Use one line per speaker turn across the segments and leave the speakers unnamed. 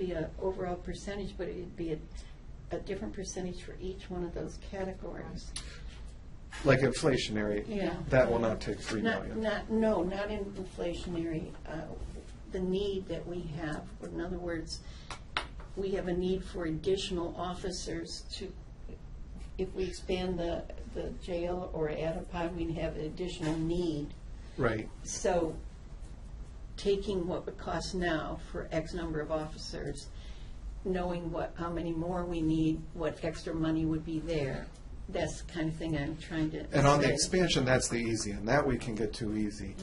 be a overall percentage, but it'd be a, a different percentage for each one of those categories.
Like inflationary,
Yeah.
that will not take three
Not,
million.
not, no, not in inflationary, uh, the need that we have. In other words, we have a need for additional officers to, if we expand the, the jail or add a pod, we'd have an additional need.
Right,
So taking what would cost now for X number of officers, knowing what, how many more we need, what extra money would be there, that's the kind of thing I'm trying to.
and on the
say.
expansion, that's the easy, and that we can get too easy.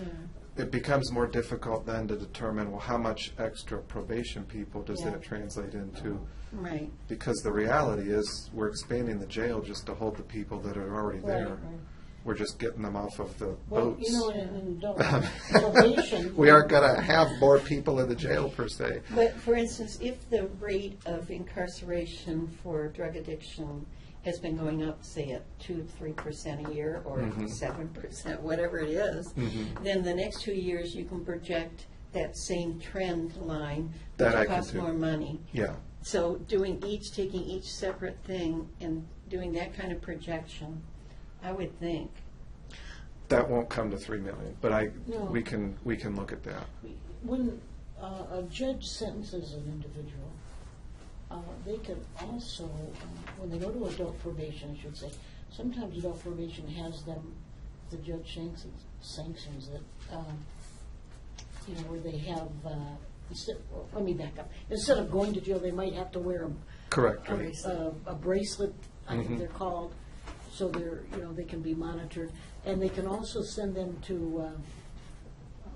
It becomes more difficult then to determine, well, how much extra probation people does
Yeah.
that translate into?
Right.
Because the reality is, we're expanding the jail just to hold the people that are already there.
Right, right.
We're just getting them off of the
Well, you know,
boats.
and, and don't, probation.
We aren't gonna have more people in the jail per se.
But for instance, if the rate of incarceration for drug addiction has been going up, say at two, three percent a year or
Mhm.
seven percent, whatever it is,
Mhm.
then the next two years you can project that same trend line, which
That I can
costs
do.
more money.
Yeah,
So doing each, taking each separate thing and doing that kind of projection, I would think.
that won't come to three million, but I,
No.
we can, we can look at that.
When uh, a judge sentences an individual, uh, they can also, uh, when they go to adult probation, I should say, sometimes adult probation has them, the judge sanctions, sanctions it, um, you know, where they have, uh, instead, well, let me back up. Instead of going to jail, they might have to wear a
Correct,
a-
right?
a a bracelet, I
Mhm.
think they're called, so they're, you know, they can be monitored. And they can also send them to, uh,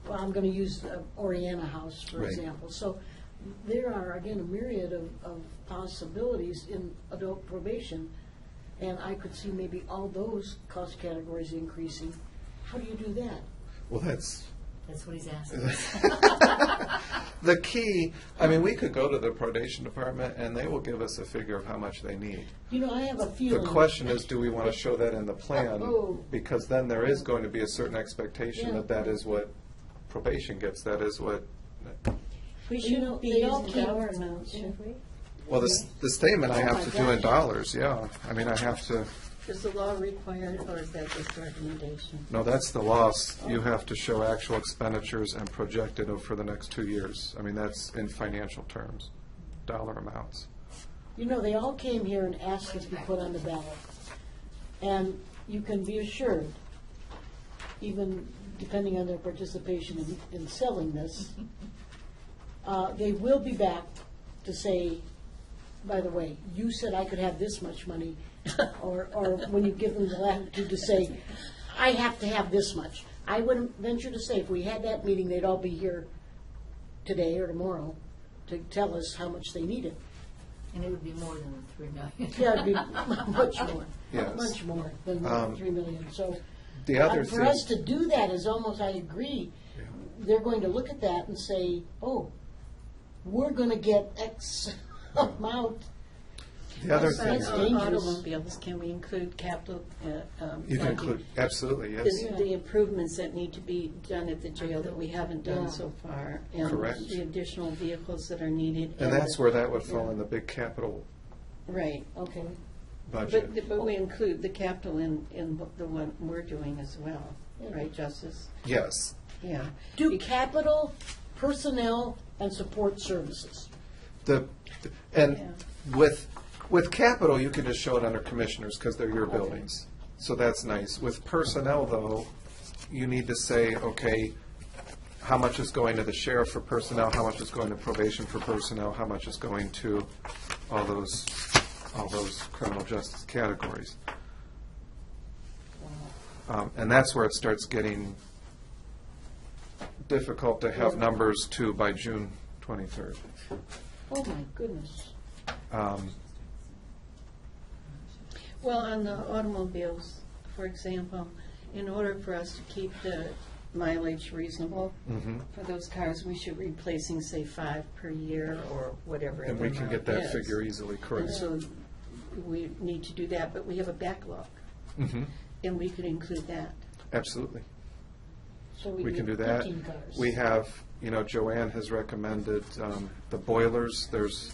well, I'm going to use uh, Oriana House, for
Right.
example. So there are, again, a myriad of of possibilities in adult probation, and I could see maybe all those cost categories increasing. How do you do that?
Well, that's,
That's what he's asking.
the key, I mean, we could go to the probation department and they will give us a figure of how much they need.
You know, I have a
The
feeling.
question is, do we want to show that in the plan?
Oh.
Because then there is going to be a certain expectation
Yeah.
that that is what probation gets, that is what,
We
You know,
shouldn't be
they all
using
keep-
dollar amounts, should we?
well, the, s- the statement I
Oh
have
my
to do in
gosh.
dollars, yeah. I mean, I have to,
Does the law require, it, or is that just a recommendation?
no, that's the loss. You have to show actual expenditures and projected over for the next two years. I mean, that's in financial terms, dollar amounts.
You know, they all came here and asked us to be put on the ballot. And you can be assured, even depending on their participation in, in selling this, uh, they will be back to say, by the way, you said I could have this much money, or, or when you give them the latitude to say, I have to have this much. I wouldn't venture to say, if we had that meeting, they'd all be here today or tomorrow to tell us how much they needed.
And it would be more than the three million.
Yeah, it'd be much more,
Yes.
much more than
Um,
three million, so.
The other
uh,
thing.
For us to do that is almost, I agree, they're going to look at that and say, oh, we're gonna get X amount.
The other
Yes,
thing,
that's
Besides
uh,
dangerous.
automobiles, can we include capital? uh, um,
you can
like
include, absolutely, yes.
The the improvements that need to be done at the jail that we haven't done
Yeah.
so far.
Correct.
And the additional vehicles that are needed.
And that's where that would fall
Yeah.
in the big capital
Right.
Okay,
budget.
But, but we include the capital in, in the one we're doing as well, right, Justice?
Yes,
Yeah.
do capital, personnel, and support services.
the, and with, with capital, you can just show it under commissioners, because they're your buildings. So that's nice. With personnel, though, you need to say, okay, how much is going to the sheriff for personnel, how much is going to probation for personnel, how much is going to all those, all those criminal justice categories. Um, And that's where it starts getting difficult to have numbers to by June twenty-third.
Oh, my goodness.
Um,
Well, on the automobiles, for example, in order for us to keep the mileage reasonable
mhm.
for those cars, we should be replacing, say, five per year or whatever.
And we can get
the
that
amount
figure
is.
easily,
And
correct.
so we need to do that, but we have a backlog,
Mhm.
and we could include that.
Absolutely.
So
we can do
need
that.
15 cars.
We have, you know, Joanne has recommended um, the boilers, there's